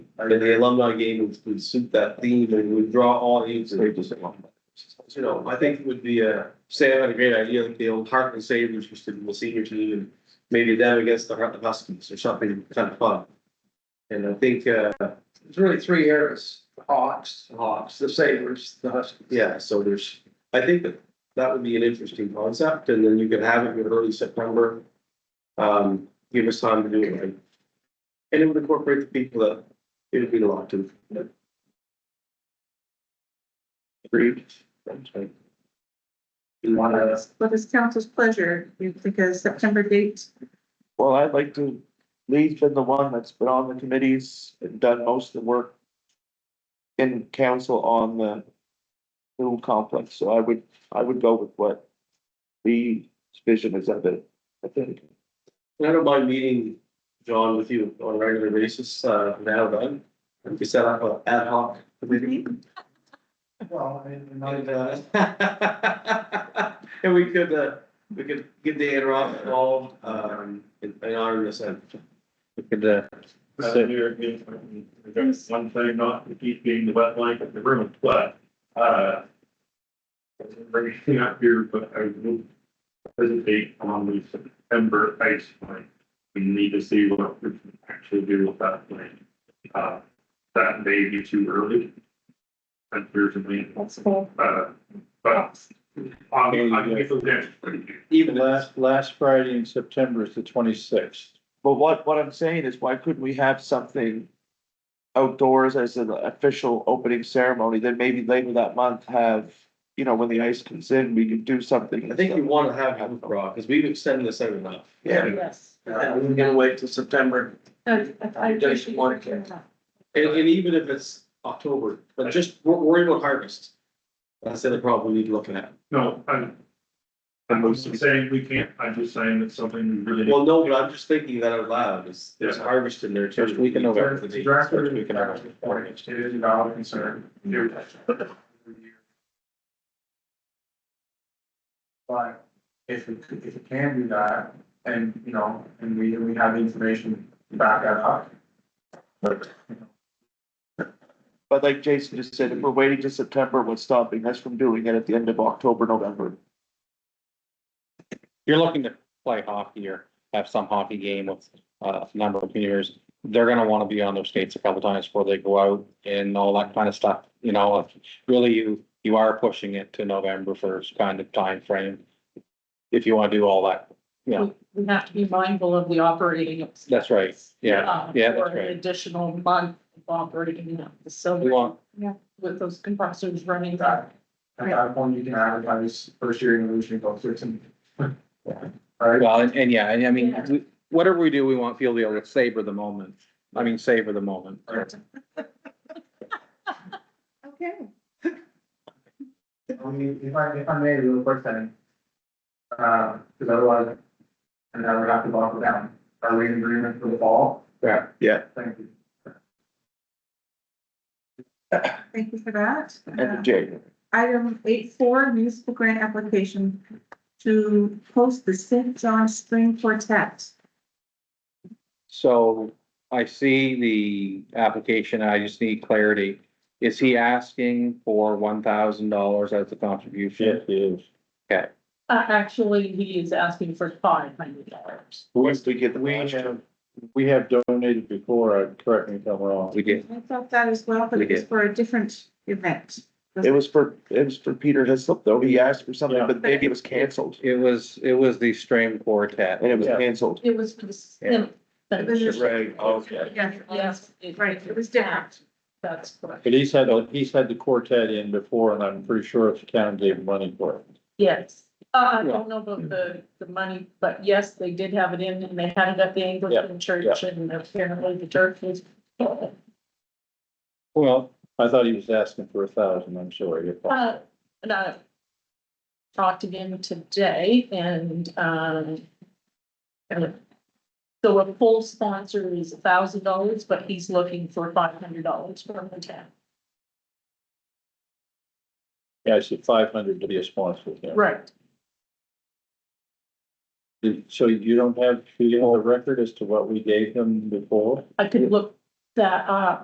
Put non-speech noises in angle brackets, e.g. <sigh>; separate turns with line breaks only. I mean, the alumni game would- would suit that theme and would draw all ages. You know, I think would be, uh, Sam had a great idea, like the old Heartland Savers, which did the senior team and maybe them against the Heartland Huskies or something kind of fun. And I think, uh,
There's really three areas, the Hawks, the Hawks, the Sabres, the Huskies.
yeah, so there's, I think that that would be an interesting concept and then you could have it in early September. Um, give us time to do it. right. And it would incorporate the people that it would be a lot to. Agreed. You wanna-
What is council's pleasure? You think a September date?
Well, I'd like to, Lee's been the one that's been on the committees and done most of the work in council on the new complex, so I would, I would go with what Lee's vision is of it, I think.
And I don't mind meeting, John, with you on a regular basis, uh, now then. If we set up an ad hoc committee.
Well, I mean, we're not-
And, uh, <laughs> and we could, uh, we could get Dan Roth involved, um, in, in our recent. We could, uh,
Uh, Here, again, there's one thing not to keep being the wet blanket, the room, but, uh. Bringing up here, but I will hesitate on the September ice plan. We need to see what we can actually do with that plan. Uh, that may be too early. Unfortunately,
That's cool.
uh, but, I mean, I think it's okay.
even last,
Last, last Friday in September is the twenty-sixth.
But what, what I'm saying is, why couldn't we have something outdoors as an official opening ceremony, then maybe later that month have, you know, when the ice comes in, we could do something.
I think we wanna have him, Rob, cause we've extended this out enough.
Yeah,
Yes.
Uh, we're gonna wait till September.
No, I- I
You don't
appreciate
want
you.
And, and even if it's October, but just, we're worried about harvest. That's the other problem we need to look at.
No, I'm. I'm just saying we can't, I'm just saying it's something we really.
Well, no, but I'm just thinking that out loud, is there's
Yeah.
harvest in there too.
First week in November.
It's a draft or
We can have a warning.
It is a valid concern. Here.
But if it, could- if it can do that, and, you know, and we, and we have the information back at hoc.
but like Jason just said, if we're waiting to September, what's stopping us from doing it at the end of October, November?
you're looking to play hockey or have some hockey game with uh, a number of seniors, they're gonna wanna be on their skates a couple times before they go out and all that kind of stuff, you know, if really you, you are pushing it to November first kind of time frame If you wanna do all that, Yeah.
We- We have to be mindful of the operating.
That's right. Yeah.
Uh,
Yeah, that's
For an
right.
additional month of operating in the
we
facility
want,
with those compressors running.
That, at that point, you can advertise first year in the Lucian Golf and Right?
well, and, and yeah, and I mean,
Yeah.
we- whatever we do, we want, feel the, able to savor the moment, I mean, savor the moment.
Okay.
I mean, if I, if I may, real quick then. Uh, cause otherwise, and I would have to buckle down. Are we in agreement for the fall?
Yeah. Yeah.
Thank you.
Thank you for that.
End
Uh,
of January.
Item eight four, municipal grant application to host the St. John String Quartet.
So I see the application, I just need clarity. Is he asking for one thousand dollars as a contribution?
Uh, actually, he is asking for five hundred dollars.
Once we get the.
we
last-
We have donated before, correct me if I'm wrong. We did,
I thought that as well, but it
We
was for a different event.
It was for, it was for Peter Hislop though. He asked for something,
Yeah.
but maybe it was canceled
it was, it was the string quartet.
and it was
Yeah.
canceled.
It was for the. sim-
It was just-
Right, okay.
Yeah,
Yes. it-
Right, it was different.
That's correct.
But he's had, he's had the quartet in before and I'm pretty sure the town gave money for it.
Yes. Uh, I don't know about the, the money, but yes, they did have it in and they had it at the Anglican church and apparently the church was.
Well, I thought he was asking for a thousand, I'm sorry.
Uh, and I talked again today and, um, and so a full sponsor is a thousand dollars, but he's looking for five hundred dollars from the town.
Yeah, I said five hundred to be a sponsor.
Right.
So you don't have, you have a record as to what we gave him before?
I could look that up.